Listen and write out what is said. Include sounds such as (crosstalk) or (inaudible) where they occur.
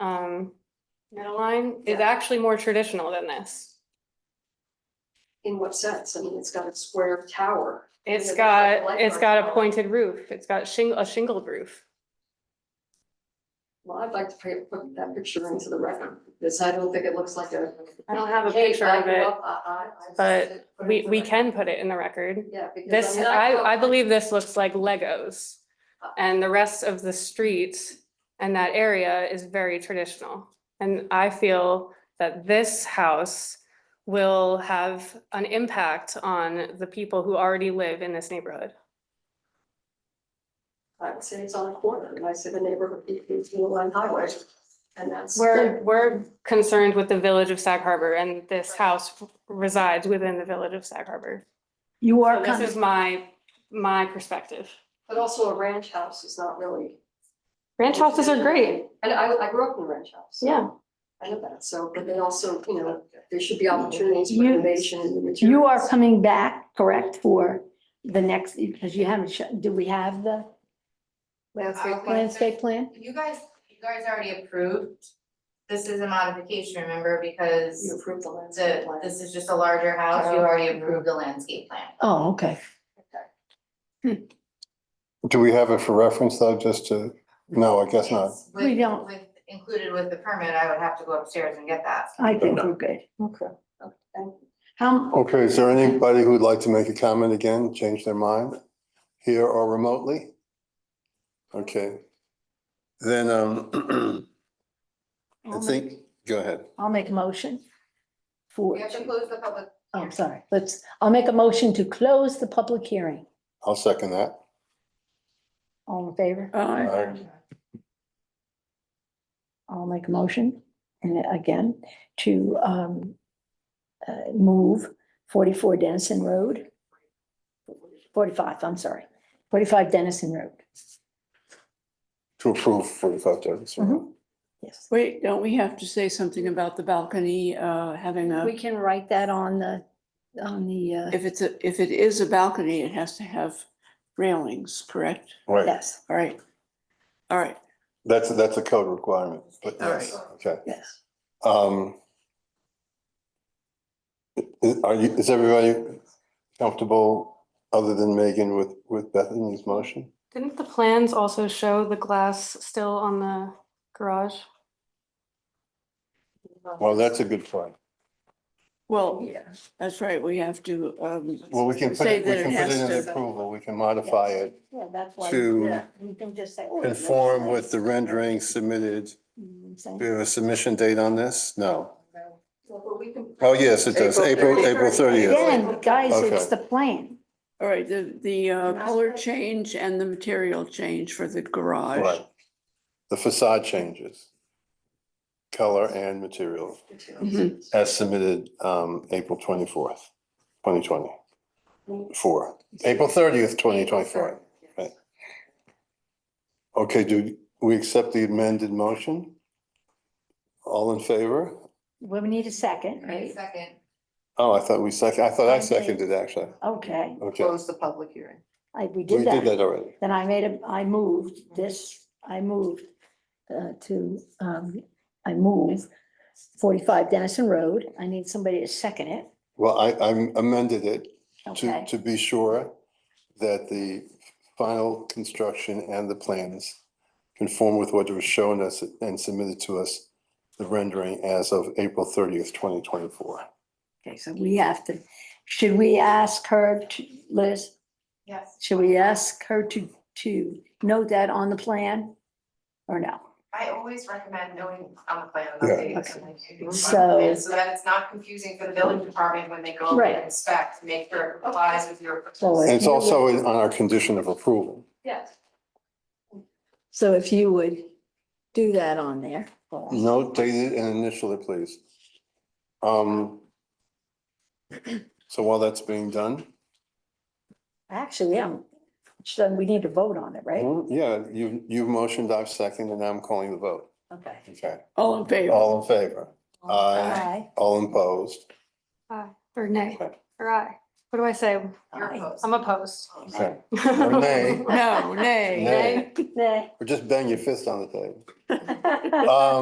um, Meadowline is actually more traditional than this. In what sense? I mean, it's got a square tower. It's Yeah, that's like got, light it's bar. got a pointed roof, it's got shing, a shingled roof. Well, I'd like to pay- put that picture into the record, because I don't think it looks like a. I don't have a Hey, picture of I grew it, up, I- I- I- but put it we, in the we record. can put it in the record. Yeah, because. This, mean, grew up- I, I believe this looks like Legos. And the rest of the streets and that area is very traditional. And I feel that this house will have an impact on the people who already live in this neighborhood. I would say it's on a corner, and I say the neighborhood is Blue Line Highway, and that's. We're, we're concerned with the village of Sag Harbor and this house resides within the village of Sag Harbor. You So are this is kind my, my perspective. But also a ranch house is not really. Ranch houses are great. And I, I grew up in a ranch house. so Yeah. I know that, so, but they also, you know, there should be opportunities for You- innovation and materials. you are coming back, correct, for the next, because you haven't, sh- do we have the Landscape plan. landscape plan? You guys, you guys already approved, this is a modification, remember, because You approved the landscape the, plan. this is just a larger house, you already approved the landscape plan. Oh, okay. Do we have it for reference though, just to, no, I guess not. It's with- We don't. With, included with the permit, I would have to go upstairs and get that. I think we're good. Okay. Okay. How, Okay, is there anybody who'd like to make a comment again, change their mind here or remotely? Okay. Then, um, (clears throat) I I'll make- think, go ahead. I'll make a motion for, We have to close the public. oh, I'm sorry, let's, I'll make a motion to close the public hearing. I'll second that. All in favor? Uh, Aye. I'll make a motion, and again, to um, uh, move forty-four Dennison Road. Forty-five, I'm sorry, forty-five Dennison Road. To approve forty-five days. Mm-hmm. Mhm. Yes, Wait, don't we have to say something about the balcony, uh, having a, we can write that on the, on the, uh, if it's a, if it is a balcony, it has to have railings, correct? Right, yes, All right. All right, that's, that's a code requirement, but All right. yes, okay. yes. Um. i- Are you, is everybody comfortable, other than Megan, with, with Bethany's motion? Didn't the plans also show the glass still on the garage? Well, that's a good point. well, that's right, we have to, um, Well, we can put Say it, we that can it put has it in to- approval, we can modify yes. it, Yeah, that's why. to yeah, we can just say, "Oh, it looks conform with nice." the rendering submitted. You know what I'm saying? Do we have a submission date on this? No. Well, but we can- Oh, yes, it does, April, April thirtieth. Again, guys, it's Okay. the plan. all right, the, the uh, color change and the material change for the garage. Right. The facade changes. Color and material Mhm. as submitted, um, April twenty-fourth, twenty twenty. Four, April thirtieth, twenty twenty-four. Right. Okay, do we accept the amended motion? All in favor? Well, We need a second, Right, right? second, Oh, I thought we second, I thought I I did. seconded actually. Okay, Okay, Close the public hearing. I, we we did did that. that already. Then I made a, I moved this, I moved uh, to, um, I moved forty-five Dennison Road. I need somebody to second it, Well, I, I amended it to, okay? to be sure that the final construction and the plans conform with what was shown us and submitted to us, the rendering as of April thirtieth, twenty twenty-four. Okay, so we have to, should we ask her to, Liz, yes. should we ask her to, to note that on the plan? Or no? I always recommend knowing on the plan Yeah. updates. and, like, if you want So- the plan, So that it's not confusing for the building department when they go over Right. and inspect, make sure it complies with your. So And if it's you would- also in- on our condition of approval. Yes. So if you would do that on there. for us. Note dated and initial it, please. Um, so while that's being done, Actually, yeah, so we need to vote on it, right? Mm, Yeah, you, you've motioned, I've seconded, and I'm calling the vote. Okay. Okay. All in favor? All in favor? Aye. Aye. All opposed? Aye, or nay, Okay. or aye. What do I say? Your Aye. post. I'm opposed. Okay. (laughs) Or nay. (laughs) No, nay. Nay. Nay. (laughs) Or just bang your fist on the table. Um,